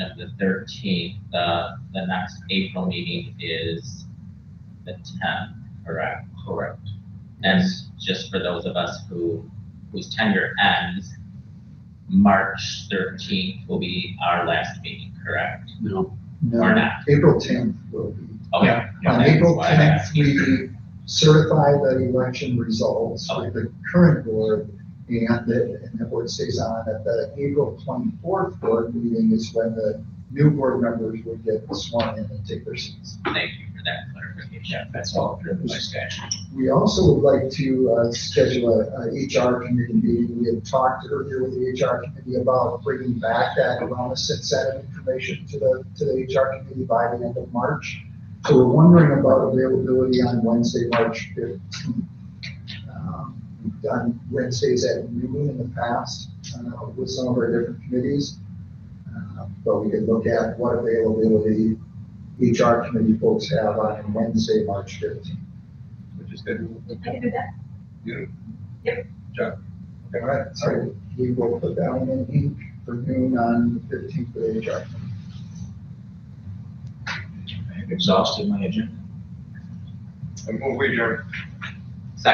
And the thirteenth, the, the next April meeting is the tenth, correct? Correct. And just for those of us who, whose tenure ends, March thirteenth will be our last meeting, correct? No, Or No, not? April tenth will be. Okay. On that's April why I'm tenth, asking. we certify the election results with the current board, and the, and the board stays on. At the April twenty-fourth board meeting is when the new board members would get sworn in and take their seats. Thank you for that clarification. That's all driven by statute. We also would like to uh, schedule a- a HR committee meeting. We had talked earlier with the HR committee about bringing back that wellness incentive information to the, to the HR committee by the end of March. So we're wondering about availability on Wednesday, March fifteenth. Um, We've done Wednesdays at noon in the past uh, with some of our different committees. Uh, But we could look at what availability HR committee folks have on Wednesday, March fifteenth. Which is good. I can do that. You. Yep. John. All right, so we will put that one in ink for noon on the fifteenth of HR. I've exhausted my agenda. I move we adjourn.